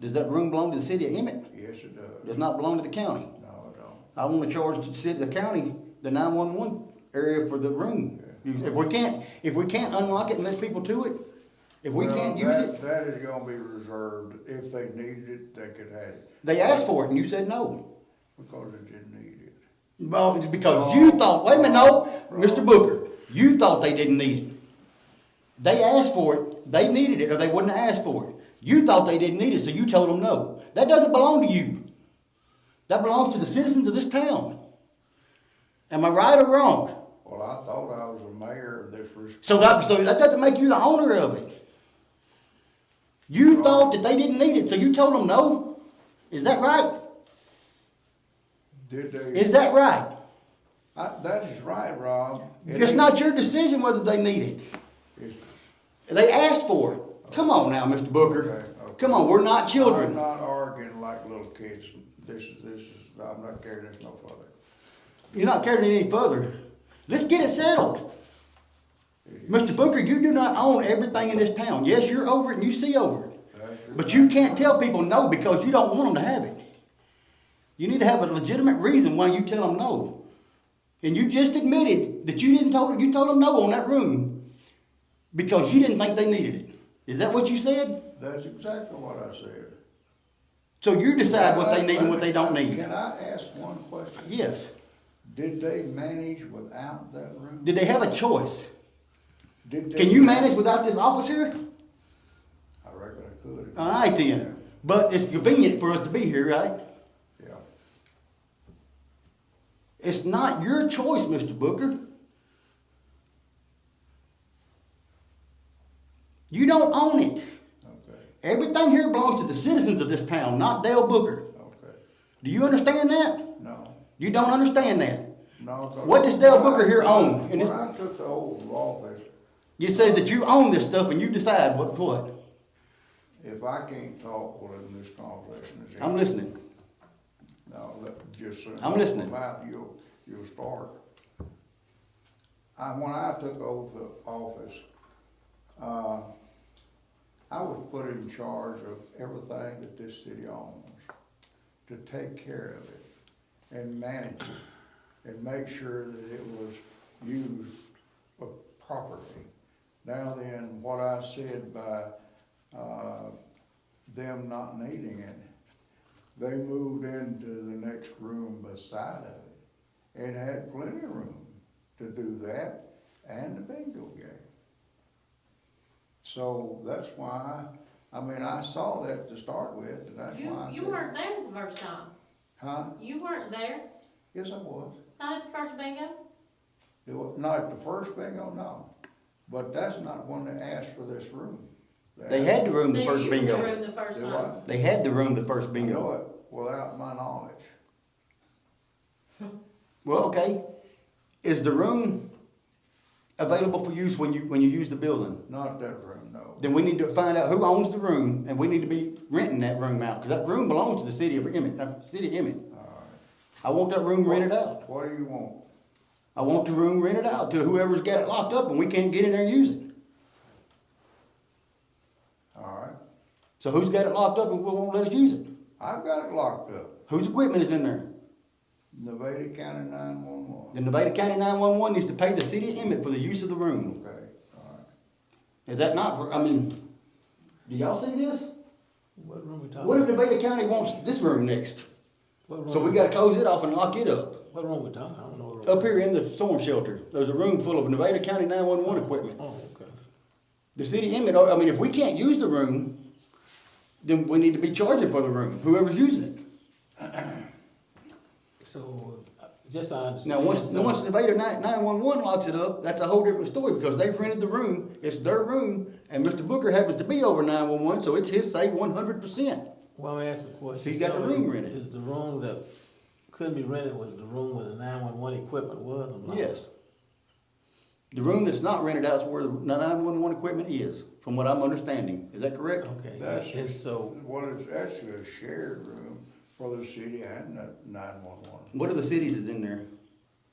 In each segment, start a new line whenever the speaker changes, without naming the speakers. Does that room belong to the city of Emmett?
Yes, it does.
Does not belong to the county.
No, it don't.
I wanna charge the city, the county, the nine-one-one area for the room. If we can't, if we can't unlock it and let people to it, if we
Well,
can't use
that-
it,
That is gonna be reserved. If they needed it, they could have it,
they asked for it and you said no.
because they didn't need it.
Well, it's because you thought, wait a minute, no, Mr. Booker, you thought they didn't need it. They asked for it, they needed it, or they wouldn't have asked for it. You thought they didn't need it, so you told them no. That doesn't belong to you. That belongs to the citizens of this town. Am I right or wrong?
Well, I thought I was the mayor of this res-
So that, so that doesn't make you the owner of it. You thought that they didn't need it, so you told them no? Is that right?
Did they?
Is that right?
I- That is right, Rob. It
It's
is-
not your decision whether they need it.
it's-
They asked for it. Come on now, Mr. Booker.
Okay, okay.
Come on, we're not
I'm
children.
not arguing like little kids. This is, this is, I'm not carrying this no further.
You're not carrying it any further. Let's get it settled. Mr. Booker, you do not own everything in this town. Yes, you're over it and you see over it.
That's your-
But you can't tell people no because you don't want them to have it. You need to have a legitimate reason why you tell them no. And you just admitted that you didn't told you told them no on that room because you didn't think they needed it. Is that what you said?
That's exactly what I said.
So you decide what they need and what they don't need.
Can I ask one question?
Yes.
Did they manage without that room?
Did they have a choice?
Did they-
Can you manage without this office here?
I reckon I could.
All right then. But it's convenient for us to be here, right?
Yeah.
It's not your choice, Mr. Booker. You don't own it.
Okay,
Everything here belongs to the citizens of this town, not Dale Booker.
okay.
Do you understand that?
No,
You don't understand that.
no. 'cause-
What does Dale Booker here own? And
When
it's-
I took the oath of office,
You say that you own this stuff and you decide what what.
if I can't talk, well, then this conversation is.
I'm
ended.
listening.
No, let, just. soon
I'm
as
listening.
come out, You'll, you'll start. I, when I took over the office, uh, I was put in charge of everything that this city owns, to take care of it and manage it and make sure that it was used properly. Now then, what I said by, uh, them not needing it, they moved into the next room beside of it and had plenty of room to do that and the bingo game. So that's why, I mean, I saw that to start with, and that's
You,
why. I
you
said-
weren't there the first time.
Huh?
You weren't there,
Yes, I was.
not at the first bingo.
It wa- Not the first bingo, no. But that's not when they asked for this room.
They had the room the
They
first
used The
bingo.
room the first
Did
time.
what?
They had the room the first
I know
bingo.
it without my knowledge.
Well, okay. Is the room available for use when you when you use the building?
Not that room, no.
then we need to find out who owns the room, and we need to be renting that room out, because that room belongs to the city of Emmett, uh, city of Emmett. I
All
want that room rented out.
right. What do you want?
I want the room rented out to whoever's got it locked up, and we can't get in there and use it.
All right.
So who's got it locked up and won't let us use it?
I've got it locked up.
Whose equipment is in there?
Nevada County nine-one-one.
The Nevada County nine-one-one needs to pay the city of Emmett for the use of the room.
Okay, all right.
Is that not, I mean, do y'all see this?
What room we talking?
What if Nevada County wants this room next? So we gotta close it off and lock it up.
What room we talking? I don't know. what room.
Up here in the storm shelter, there's a room full of Nevada County nine-one-one equipment.
Oh, okay.
The city inmate, I mean, if we can't use the room, then we need to be charging for the room, whoever's using it.
So, uh, just so I
Now,
understand.
once,
so-
now once Nevada nine, nine-one-one locks it up, that's a whole different story, because they've rented the room, it's their room, and Mr. Booker happens to be over nine-one-one, so it's his say one hundred percent.
Well, I'm asking a question.
He got the
So
room
is-
rented.
Is the room that couldn't be rented was the room where the nine-one-one equipment was? or not?
Yes. The room that's not rented out is where the nine-one-one equipment is, from what I'm understanding, is that correct?
Okay,
That's-
and so,
Well, it's actually a shared room for the city and the nine-one-one.
What are the cities is in there?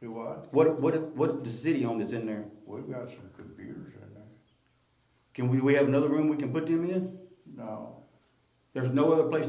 Do what?
What, what, what the city on that's in there?
We've got some computers in there.
Can we, we have another room we can put them in?
No,
There's no other place